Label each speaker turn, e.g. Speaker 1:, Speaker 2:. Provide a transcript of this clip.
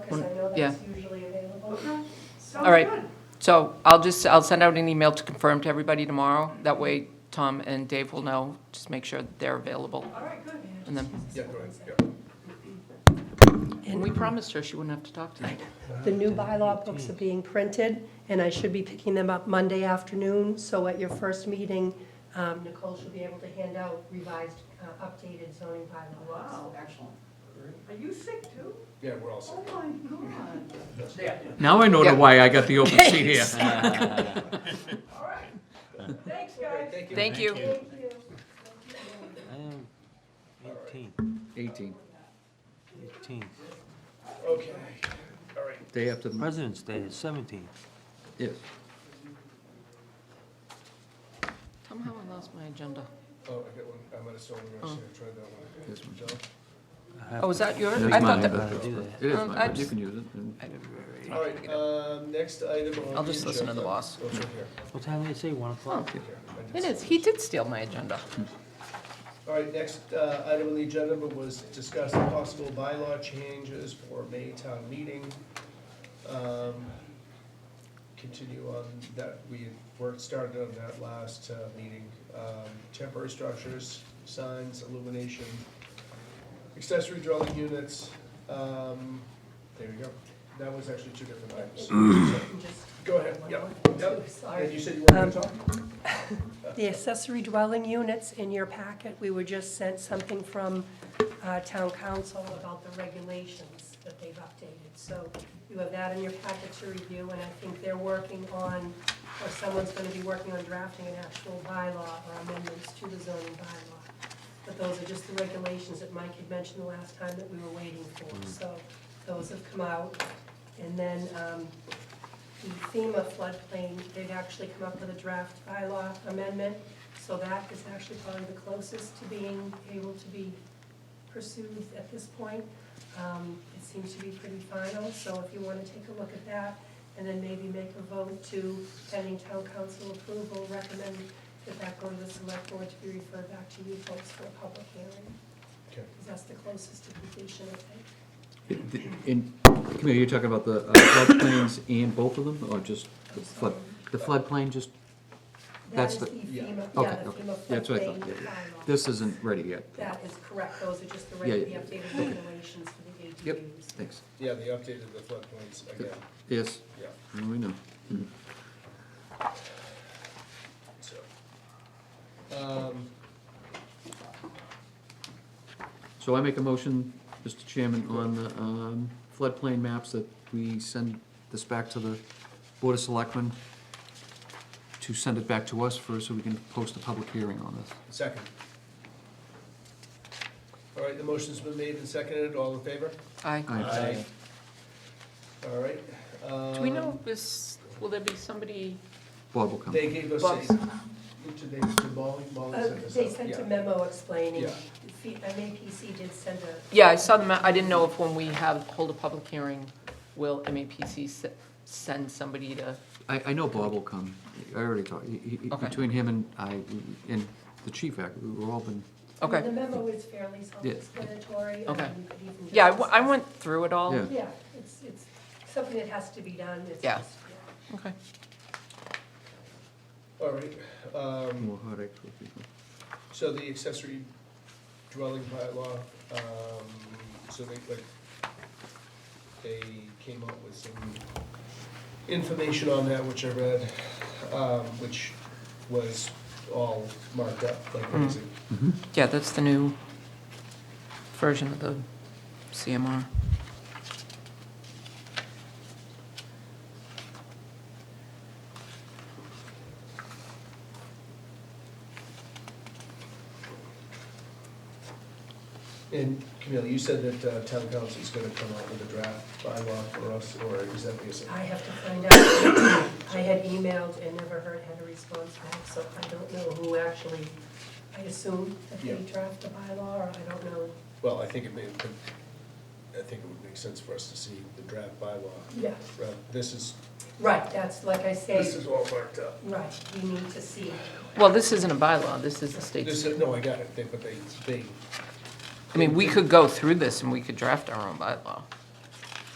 Speaker 1: because I know
Speaker 2: yeah.
Speaker 1: that's usually available.
Speaker 2: All right. So I'll just, I'll send out an email to confirm to everybody tomorrow. That way Tom and Dave will know, just make sure that they're available.
Speaker 1: All right, good.
Speaker 2: And then,
Speaker 3: Yeah, go ahead, yeah.
Speaker 2: and we promised her she wouldn't have to talk tonight.
Speaker 4: The new bylaw books are being printed, and I should be picking them up Monday afternoon, so at your first meeting, um, Nicole should be able to hand out revised, uh, updated zoning bylaw. books.
Speaker 1: Wow.
Speaker 5: Excellent.
Speaker 1: Are you sick too?
Speaker 3: Yeah, we're all set.
Speaker 1: Oh, my God.
Speaker 6: Now I know
Speaker 2: Yeah.
Speaker 6: the why I got the open seat here.
Speaker 1: All right. Thanks, guys.
Speaker 3: Thank you.
Speaker 2: Thank you.
Speaker 1: Thank you.
Speaker 5: Um, Eighteen.
Speaker 6: 18,
Speaker 5: Eighteen.
Speaker 3: Okay, all right.
Speaker 6: day after, the-
Speaker 5: President's Day is seventeen.
Speaker 6: yes.
Speaker 2: Somehow I lost my agenda.
Speaker 3: Oh, I got one, I'm at a sewing machine, I tried that one.
Speaker 6: Yes, ma'am.
Speaker 3: John?
Speaker 2: Oh, is that yours? I
Speaker 6: That's mine,
Speaker 2: thought that,
Speaker 6: but-
Speaker 5: Gotta uh, do that.
Speaker 6: It is
Speaker 2: Um,
Speaker 6: mine,
Speaker 2: I
Speaker 6: but you
Speaker 2: just-
Speaker 6: can use it. and-
Speaker 3: All right, um, next item on.
Speaker 2: I'll
Speaker 3: the
Speaker 2: just listen to the
Speaker 3: agenda-
Speaker 2: boss.
Speaker 3: Oh, it's right here.
Speaker 5: What time did I say? One o'clock?
Speaker 3: Here, I did
Speaker 2: it is,
Speaker 3: see
Speaker 2: he did steal my agenda.
Speaker 3: All right, next uh, item on the agenda was discuss possible bylaw changes for May town meeting. Um, Continue on that, we worked, started on that last uh, meeting. Um, Temporary structures, signs, illumination, accessory dwelling units. um, There you go. That was actually two different items. Go ahead, yep, yep.
Speaker 1: Sorry.
Speaker 3: And you said you weren't going to talk?
Speaker 4: The accessory dwelling units in your packet, we were just sent something from uh, town council about the regulations that they've updated. So you have that in your packet to review, and I think they're working on, or someone's going to be working on drafting an actual bylaw or amendments to the zoning bylaw. But those are just the regulations that Mike had mentioned the last time that we were waiting for. So those have come out. And then um, the FEMA floodplain, they've actually come up with a draft bylaw amendment. So that is actually probably the closest to being able to be pursued at this point. Um, It seems to be pretty final, so if you want to take a look at that, and then maybe make a vote to, pending town council approval, recommend that that go to the select board to be referred back to you folks for a public hearing,
Speaker 3: Okay.
Speaker 4: because that's the closest to completion, I think.
Speaker 6: It- the- In, Camille, you're talking about the uh, floodplains and both of them, or just the flood, the floodplain, just,
Speaker 4: That
Speaker 6: That's
Speaker 4: is the
Speaker 6: the-
Speaker 4: FEMA, yeah,
Speaker 6: okay,
Speaker 4: the
Speaker 6: okay.
Speaker 4: FEMA
Speaker 6: That's what I
Speaker 4: floodplain
Speaker 6: thought, yeah, yeah.
Speaker 4: bylaw.
Speaker 6: This isn't ready yet.
Speaker 4: That is correct, those are just the
Speaker 6: Yeah,
Speaker 4: reg- the
Speaker 6: yeah.
Speaker 4: updated regulations for the ADUs.
Speaker 6: Yep, thanks.
Speaker 3: Yeah, they updated the floodplains again,
Speaker 6: Yes,
Speaker 3: yeah,
Speaker 6: we know. Mhm.
Speaker 3: so. Um,
Speaker 6: So I make a motion, Mr. Chairman, on the um, floodplain maps that we send this back to the Board of Selectmen to send it back to us first, so we can post a public hearing on this.
Speaker 3: Second. All right, the motion's been made and seconded, all in favor?
Speaker 2: I,
Speaker 6: Aye.
Speaker 3: All right.
Speaker 2: do we
Speaker 3: um,
Speaker 2: know if this, will there be somebody?
Speaker 6: Bob will come.
Speaker 3: They gave us
Speaker 2: Bugs.
Speaker 3: a, did they, did Molly, Molly
Speaker 4: Uh,
Speaker 3: sent us
Speaker 4: They
Speaker 3: out,
Speaker 4: sent a
Speaker 3: yeah.
Speaker 4: memo explaining,
Speaker 3: Yeah.
Speaker 4: F- MAPC did send a,
Speaker 2: Yeah, I saw the, ma- I didn't know if when we have, hold a public hearing, will MAPC se- send somebody to?
Speaker 6: I, I know Bob will come. I already talked, he- he- he-
Speaker 2: Okay.
Speaker 6: between him and I, we- and the chief, act- we've all been,
Speaker 4: I mean,
Speaker 2: Okay.
Speaker 4: the memo is fairly self-explanatory.
Speaker 2: Okay.
Speaker 4: and you could even
Speaker 2: Yeah, I,
Speaker 4: just-
Speaker 2: w- I went through it all.
Speaker 6: Yeah.
Speaker 4: Yeah, it's, it's something that has to be done, it's
Speaker 2: Yeah.
Speaker 4: just, yeah.
Speaker 2: Okay.
Speaker 3: All right, um,
Speaker 6: more heartache for people.
Speaker 3: so the accessory dwelling bylaw, um, so they, like, they came up with some information on that, which I read, um, which was all marked up, like, what is it,
Speaker 2: Yeah, that's the new version of the CMR.
Speaker 3: And Camille, you said that uh, town council is gonna come out with a draft bylaw for us, or is that the
Speaker 4: I have to find out. I had emailed and never heard, had a response back, so I don't know who actually, I assume that they
Speaker 3: Yeah.
Speaker 4: draft the bylaw, or I don't know.
Speaker 3: Well, I think it may, I think it would make sense for us to see the draft bylaw.
Speaker 4: Yeah.
Speaker 3: Uh, This is,
Speaker 4: Right, that's, like I say,
Speaker 3: this is all marked up.
Speaker 4: right, we need to see.
Speaker 2: Well, this isn't a bylaw, this is the
Speaker 3: This,
Speaker 2: state's,
Speaker 3: is- no, I got it, They- but they, they,
Speaker 2: I mean, we could go through this and we could draft our own bylaw.